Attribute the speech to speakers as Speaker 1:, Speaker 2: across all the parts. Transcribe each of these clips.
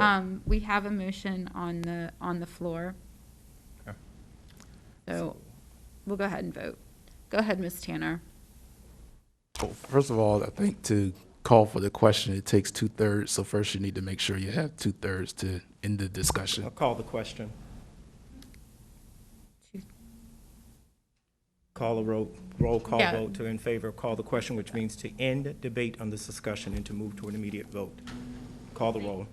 Speaker 1: Um, we have a motion on the, on the floor.
Speaker 2: Okay.
Speaker 1: So we'll go ahead and vote. Go ahead, Ms. Tanner.
Speaker 3: Well, First of all, I think to call for the question, it takes two thirds. So first, you need to make sure you have two thirds to end the discussion.
Speaker 4: I'll call the question. Call a roll, roll call
Speaker 1: Yeah.
Speaker 4: vote to in favor, call the question, which means to end debate on this discussion and to move to an immediate vote. Call the roll.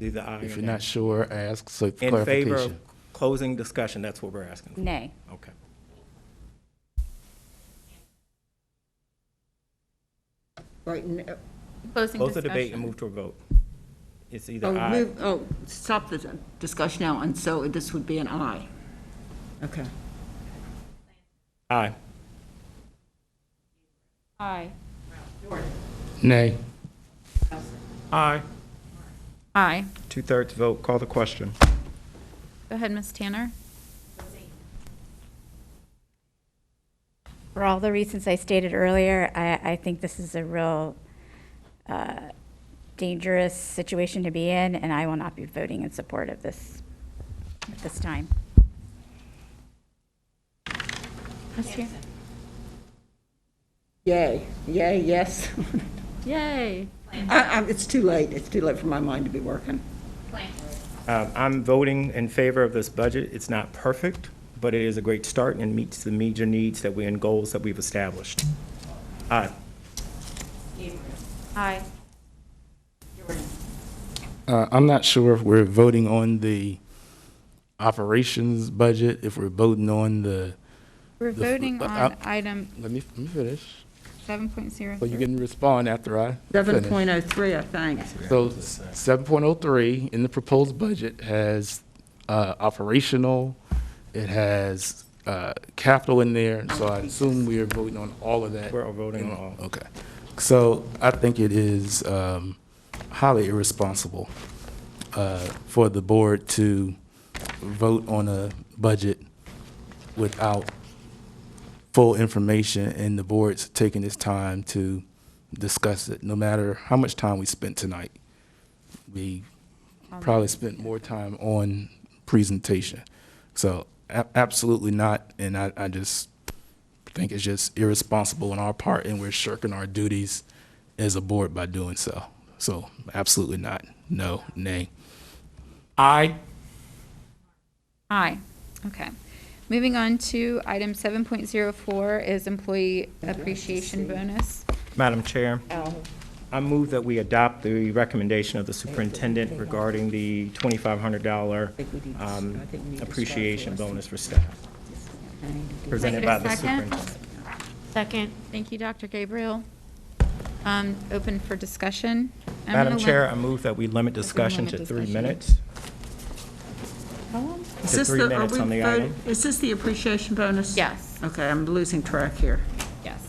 Speaker 4: Either aye
Speaker 3: If
Speaker 4: or
Speaker 3: you're not
Speaker 4: nay.
Speaker 3: sure, ask for
Speaker 4: In favor of
Speaker 3: clarification.
Speaker 4: closing discussion, that's what we're asking. for.
Speaker 5: Nay.
Speaker 1: Mm.
Speaker 4: Okay.
Speaker 5: Right, n- uh,
Speaker 1: Closing
Speaker 4: Close the debate and
Speaker 1: discussion.
Speaker 4: move to a vote. It's either
Speaker 5: oh,
Speaker 4: aye,
Speaker 5: move, oh, stop the discussion now, and so this would be an aye. Okay.
Speaker 4: aye.
Speaker 1: Aye.
Speaker 3: Nay.
Speaker 4: Aye.
Speaker 1: Aye.
Speaker 4: Two-thirds vote, call the question.
Speaker 1: Go ahead, Ms. Tanner.
Speaker 6: For all the reasons I stated earlier, I, I think this is a real uh, dangerous situation to be in, and I will not be voting in support of this at this time.
Speaker 1: Ms. Tan-
Speaker 5: Yay, yay, yes.
Speaker 1: Yay.
Speaker 5: I, I, it's too late, it's too late for my mind to be working.
Speaker 4: Um, I'm voting in favor of this budget. It's not perfect, but it is a great start and meets the major needs that we, and goals that we've established. Uh, Aye.
Speaker 1: Aye.
Speaker 3: Uh, I'm not sure if we're voting on the operations budget, if we're voting on the,
Speaker 1: We're
Speaker 3: The fl-
Speaker 1: voting
Speaker 3: uh,
Speaker 1: on
Speaker 3: uh,
Speaker 1: item
Speaker 3: let me, let me finish.
Speaker 1: seven point zero.
Speaker 3: Well, you can respond after I
Speaker 5: Seven
Speaker 3: finish.
Speaker 5: point oh three, I think.
Speaker 3: So seven point oh three in the proposed budget has uh, operational, it has uh, capital in there, so I assume we are voting on all of that.
Speaker 4: We're all voting on all.
Speaker 3: Okay, so I think it is um, highly irresponsible uh, for the board to vote on a budget without full information and the board's taking its time to discuss it, no matter how much time we spent tonight. We probably spent more time on presentation. So a- absolutely not, and I, I just think it's just irresponsible on our part and we're shirking our duties as a board by doing so. So absolutely not. No, nay.
Speaker 2: Aye.
Speaker 1: Aye. Okay. Moving on to item seven point zero four is employee appreciation bonus.
Speaker 4: Madam Chair, I move that we adopt the recommendation of the superintendent regarding the $2,500 um, appreciation bonus for staff, presented
Speaker 1: Can
Speaker 4: by
Speaker 1: I get a
Speaker 4: the
Speaker 1: second?
Speaker 4: superintendent.
Speaker 7: Second.
Speaker 1: Thank you, Dr. Gabriel. Um, open for discussion. I'm
Speaker 4: Madam
Speaker 1: gonna
Speaker 4: Chair, uh,
Speaker 1: let-
Speaker 4: I move that we limit discussion to
Speaker 1: limit
Speaker 4: three
Speaker 1: discussion.
Speaker 4: minutes.
Speaker 5: Is
Speaker 4: To
Speaker 5: this
Speaker 4: three
Speaker 5: the- are
Speaker 4: minutes
Speaker 5: we
Speaker 4: on the
Speaker 5: voting-
Speaker 4: item.
Speaker 5: Is this the appreciation bonus?
Speaker 1: Yes,
Speaker 5: Okay, I'm losing track here.
Speaker 1: yes.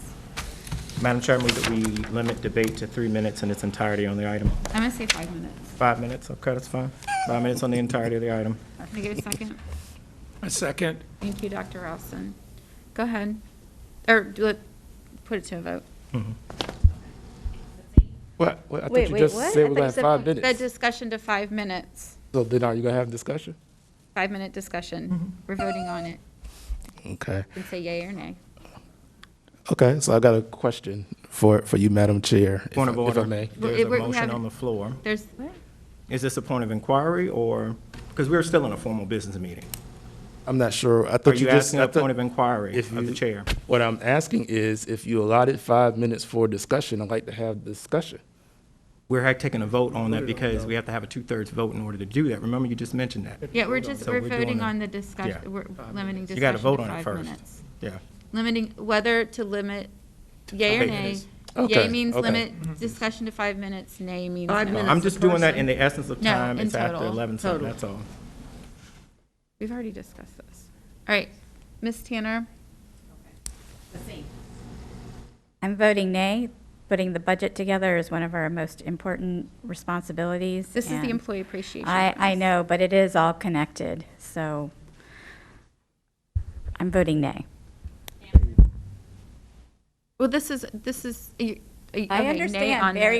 Speaker 4: Madam Chair, I move that we limit debate to three minutes in its entirety on the item.
Speaker 1: I'm gonna say five minutes.
Speaker 4: Five minutes, okay, that's fine. Five minutes on the entirety of the item.
Speaker 1: Can I get a second?
Speaker 2: A second.
Speaker 1: Thank you, Dr. Ralston. Go ahead. Or do it, put it to a vote.
Speaker 3: What? What? I
Speaker 6: Wait,
Speaker 3: thought you
Speaker 6: wait,
Speaker 3: just
Speaker 6: what?
Speaker 3: said we're
Speaker 6: I thought you
Speaker 3: gonna have
Speaker 6: said
Speaker 3: five
Speaker 6: point-
Speaker 1: The
Speaker 3: minutes.
Speaker 1: discussion to five minutes,
Speaker 3: So then are you gonna have discussion?
Speaker 1: five-minute
Speaker 2: Mm-hmm.
Speaker 1: discussion. We're voting on it.
Speaker 3: Okay.
Speaker 1: You can say yay or nay.
Speaker 3: Okay, so I got a question for, for you, Madam Chair. if
Speaker 4: Point
Speaker 3: I-
Speaker 4: of
Speaker 3: If I
Speaker 4: order.
Speaker 3: may.
Speaker 1: Well,
Speaker 4: There's
Speaker 1: it-
Speaker 4: a
Speaker 1: we- we
Speaker 4: motion
Speaker 1: haven't-
Speaker 4: on the floor.
Speaker 1: There's,
Speaker 4: Is this a point of inquiry or, because we're still in a formal business meeting.
Speaker 3: I'm not sure. I
Speaker 4: Are
Speaker 3: thought you
Speaker 4: you
Speaker 3: just.
Speaker 4: asking
Speaker 3: I
Speaker 4: a
Speaker 3: thought-
Speaker 4: point of inquiry
Speaker 3: if
Speaker 4: of
Speaker 3: you-
Speaker 4: the chair?
Speaker 3: What I'm asking is if you allotted five minutes for discussion, I'd like to have discussion.
Speaker 4: We're had- taking a vote on that because we have to have a two-thirds vote in order to do that. Remember, you just mentioned that.
Speaker 1: yeah, we're just,
Speaker 4: So
Speaker 1: we're
Speaker 4: we're doing
Speaker 1: voting
Speaker 4: the-
Speaker 1: on the
Speaker 4: yeah.
Speaker 1: discussion, we're limiting
Speaker 4: You
Speaker 1: discussion
Speaker 4: gotta vote
Speaker 1: to
Speaker 4: on it
Speaker 1: five
Speaker 4: first.
Speaker 1: minutes.
Speaker 4: Yeah.
Speaker 1: Limiting, whether to limit yay or
Speaker 4: Five
Speaker 1: nay.
Speaker 4: minutes.
Speaker 1: Yay
Speaker 3: Okay,
Speaker 1: means
Speaker 3: okay.
Speaker 2: Mm-hmm.
Speaker 1: limit discussion to five minutes, nay means
Speaker 5: Five
Speaker 1: no.
Speaker 5: minutes.
Speaker 4: I'm
Speaker 5: It's a
Speaker 4: just doing that in
Speaker 5: person.
Speaker 4: the essence of
Speaker 1: No,
Speaker 4: time.
Speaker 1: in
Speaker 4: It's after
Speaker 1: total.
Speaker 4: 11, so
Speaker 5: Total.
Speaker 4: that's all.
Speaker 1: We've already discussed this. All right, Ms. Tanner?
Speaker 6: I'm voting nay. Putting the budget together is one of our most important responsibilities.
Speaker 1: This is the
Speaker 6: and
Speaker 1: employee appreciation.
Speaker 6: I, I
Speaker 1: bonus.
Speaker 6: know, but it is all connected, so I'm voting nay.
Speaker 1: Well, this is, this is, you- okay, nay
Speaker 6: I understand
Speaker 1: on the-
Speaker 6: very